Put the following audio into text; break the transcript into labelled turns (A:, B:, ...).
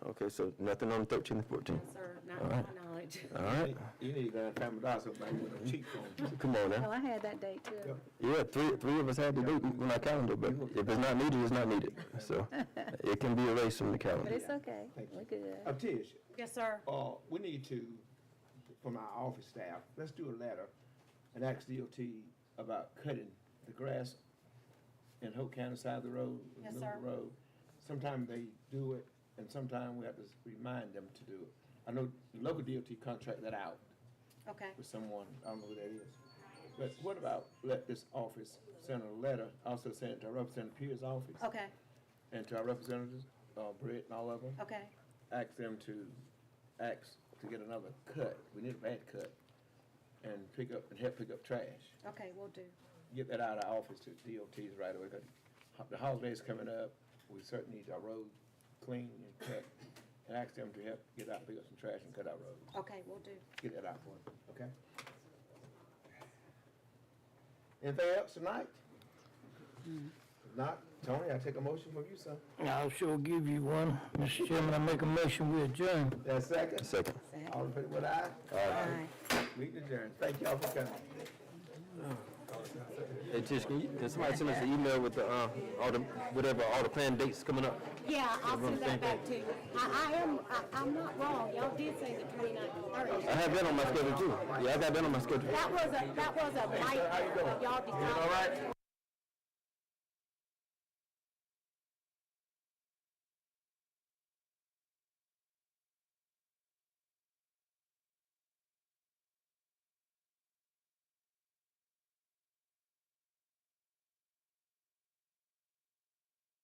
A: Okay, so nothing on thirteen and fourteen?
B: sir, not
A: All right.
B: to my knowledge.
A: All right,
C: You need that family doctor back with a cheek on.
A: come on
D: Oh,
A: now.
D: I had that date too.
A: Yeah, three, three of us had to do it on our calendar, but if it's not needed, it's not needed. So it can be erased from the
D: But
A: calendar.
D: it's okay. We're good.
C: Uh, Tish,
B: Yes, sir.
C: uh, we need to, from our office staff, let's do a letter and ask DOT about cutting the grass in Hope County side of the road. in the
B: Yes,
C: middle of
B: sir.
C: the road. Sometime they do it, and sometime we have to remind them to do it. I know the local DOT contract that out
B: Okay.
C: with someone, I don't know who that is. But what about let this office send a letter, also send it to Representative Pierce's office?
B: Okay,
C: and to our representatives, uh, Brett and all of them,
B: okay.
C: ask them to, ask to get another cut, we need a bad cut, and pick up, and help pick up trash.
B: Okay, we'll do.
C: Get that out of our office to DOTs right away, 'cause ho- the holiday's coming up, we certainly need our road clean and cut, and ask them to help get out, pick up some trash and cut our roads,
B: Okay, we'll do.
C: get that out for them, okay? Anything else tonight? If not, Tony, I take a motion from you, sir.
E: I'll sure give you one. Mr. Chairman, I make a motion, we adjourn.
C: That's second.
A: Second.
C: All in favor, with aye?
B: Aye.
C: We adjourn. Thank y'all for coming.
A: Hey, Tish, can you, can somebody send us an email with the, uh, all the, whatever, all the planned dates coming up?
B: Yeah, I'll
A: Everyone thank
B: send that back to you. I, I am, I, I'm not wrong. Y'all did say the twenty-ninth and
A: I
B: thirtieth.
A: have that on my schedule too. Yeah, I got that on my schedule.
B: That was a, that was a light, but y'all decided.
A: all right?